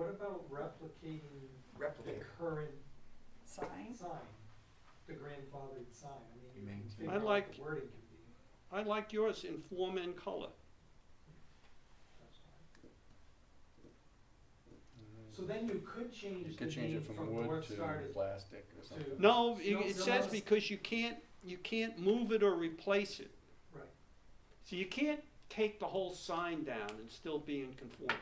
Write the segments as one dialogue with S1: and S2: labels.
S1: about replicating the
S2: replicate.
S1: current
S3: sign.
S1: sign, the grandfathered sign? I mean, you
S2: You
S1: can
S2: maintain-
S1: figure
S4: I
S1: out what
S4: like-
S1: the wording can be.
S4: I like yours in form and color.
S1: That's fine. So then you could
S5: Mm. You
S1: change the
S5: could change
S1: name
S5: it
S1: from
S5: from wood
S1: North Star
S5: to
S1: to
S5: plastic or something.
S4: No,
S1: No,
S4: it, it
S1: no,
S4: says
S1: it's-
S4: because you can't, you can't move it or replace it.
S1: Right.
S4: So you can't take the whole sign down and still be in conformance.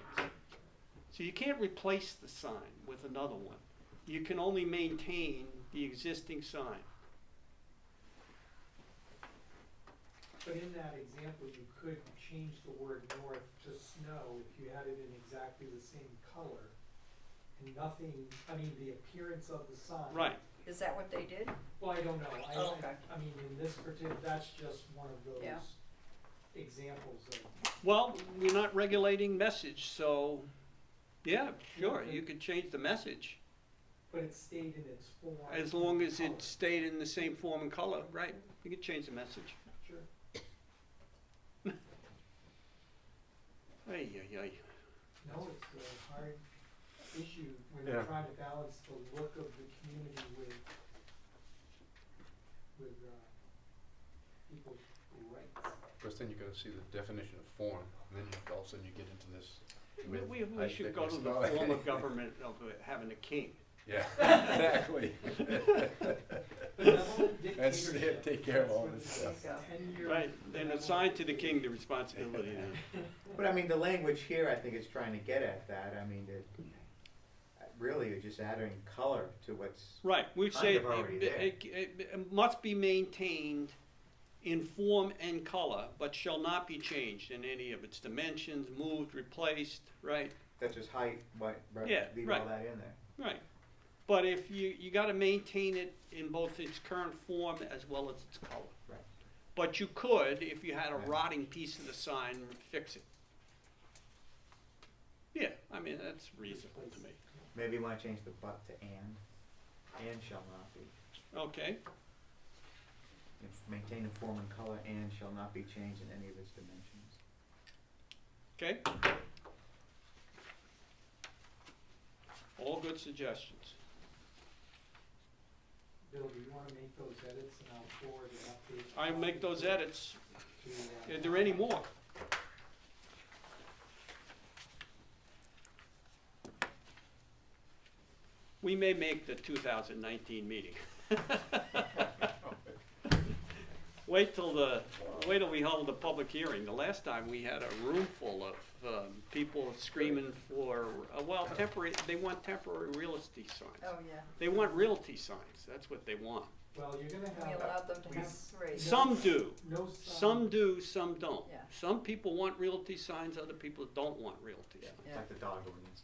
S4: So you can't replace the sign with another one. You can only maintain the existing sign.
S1: But in that example, you could change the word north to snow if you had it in exactly the same color. And nothing, I mean, the appearance of the sign.
S4: Right,
S3: Is that what they did?
S1: Well, I don't know, I,
S3: Oh, okay.
S1: I, I mean, in this particular, that's just one of those
S3: Yeah.
S1: examples of,
S4: well, we're not regulating message, so, yeah, sure, you could change the message.
S1: but it stayed in its form.
S4: As long as
S1: and
S4: it stayed in the same form and color, right, you could change the message.
S1: color. Sure,
S4: Ay, ay, ay.
S1: no, it's a hard issue when
S2: Yeah.
S1: you're trying to balance the look of the community with, with, uh, people's rights.
S5: First then you go see the definition of form, and then you, all of a sudden you get into this
S4: We,
S5: with
S4: we- we
S5: height,
S4: should go
S5: thickness,
S4: to the
S5: color.
S4: form of government of having a king.
S5: Yeah, exactly.
S1: Benevolent
S5: That's- they
S1: dictatorship.
S5: take care of
S1: That's
S5: all
S1: what
S5: this
S1: it is.
S3: stuff.
S1: Ten-year
S4: Right, and assign to the king the responsibility.
S2: But I mean, the language here, I think is trying to get at that, I mean, that, really, you're just adding color to what's,
S4: Right, we
S2: Kind
S4: say
S2: of already
S4: it, it- it- it must be maintained in form and color, but shall not be changed in any of its dimensions, moved, replaced, right,
S2: that's just height, what, right,
S4: Yeah,
S2: leave all
S4: right.
S2: that in there.
S4: right. But if you, you gotta maintain it in both its current form as well as its color.
S2: Right.
S4: But you could, if you had a
S2: Right.
S4: rotting piece of the sign, fix it. Yeah, I mean, that's reasonable to me.
S2: Maybe you wanna change the but to and, and shall not be,
S4: Okay,
S2: If- maintain in form and color, and shall not be changed in any of its dimensions.
S4: okay. All good suggestions.
S1: Bill, do you wanna make those edits and I'll forward an update?
S4: I make those edits.
S1: to, uh,
S4: Are there any more? We may make the two thousand nineteen meeting. Wait till the, wait till we hold the public hearing. The last time we had a room full of, um, people screaming for, uh, well, temporary, they want temporary realty
S3: Oh,
S4: signs.
S3: yeah.
S4: They want realty signs. That's what they want.
S1: Well, you're gonna
S3: Oh, We
S1: have
S3: allowed them to have three.
S4: Some do.
S1: no
S4: Some
S1: sign,
S4: do, some don't.
S3: Yeah.
S4: Some people want realty signs, other people don't want realty signs.
S2: It's like the dog ordinance,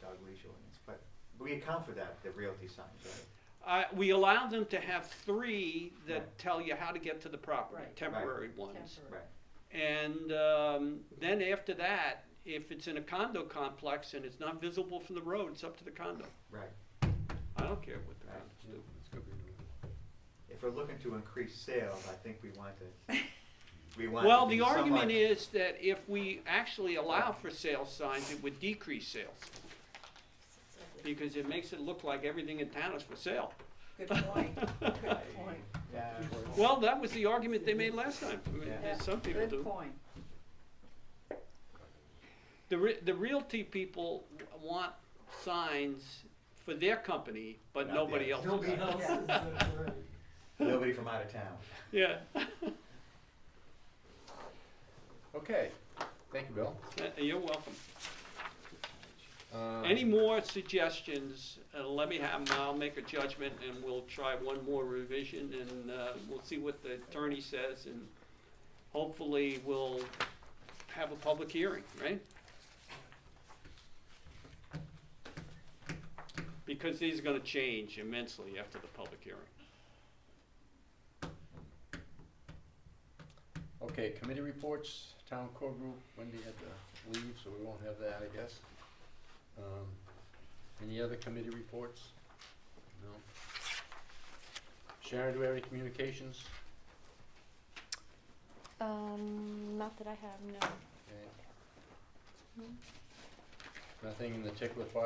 S2: dog leash ordinance, but we account for that, the realty signs, right?
S4: Uh, we allow them to have three that tell you how to get to the property,
S3: Right.
S4: temporary ones.
S3: Temporary.
S2: Right.
S4: And, um, then after that, if it's in a condo complex and it's not visible from the road, it's up to the condo.
S2: Right.
S4: I don't care what the
S2: Right.
S4: condos do.
S5: It's gonna be doing-
S2: If we're looking to increase sales, I think we want to, we want to
S4: Well,
S2: be
S4: the argument
S2: somewhat-
S4: is that if we actually allow for sale signs, it would decrease sales, because it makes it look like everything in town is for sale.
S3: Good point, good point.
S2: Yeah.
S4: Well, that was the argument they made last time. I mean,
S2: Yeah.
S4: there's Some people
S3: Good
S4: do.
S3: point.
S4: The re- the realty people want signs for their company, but
S2: Not
S4: nobody
S2: theirs.
S4: else.
S1: nobody else is, uh, right.
S2: Nobody from out of town.
S4: Yeah,
S5: Okay, thank you, Bill.
S4: Uh, you're welcome.
S5: Um,
S4: Any more suggestions, uh, let me have them, I'll make a judgment and we'll try one more revision and, uh, we'll see what the attorney says and hopefully we'll have a public hearing, right? Because these are gonna change immensely after the public hearing.
S5: Okay, committee reports, town core group, Wendy had to leave, so we won't have that, I guess. Um, Any other committee reports? No? Sharon, do we have any communications?
S6: Um, not that I have, no.
S5: Okay.
S6: No.
S5: Nothing in the tickler file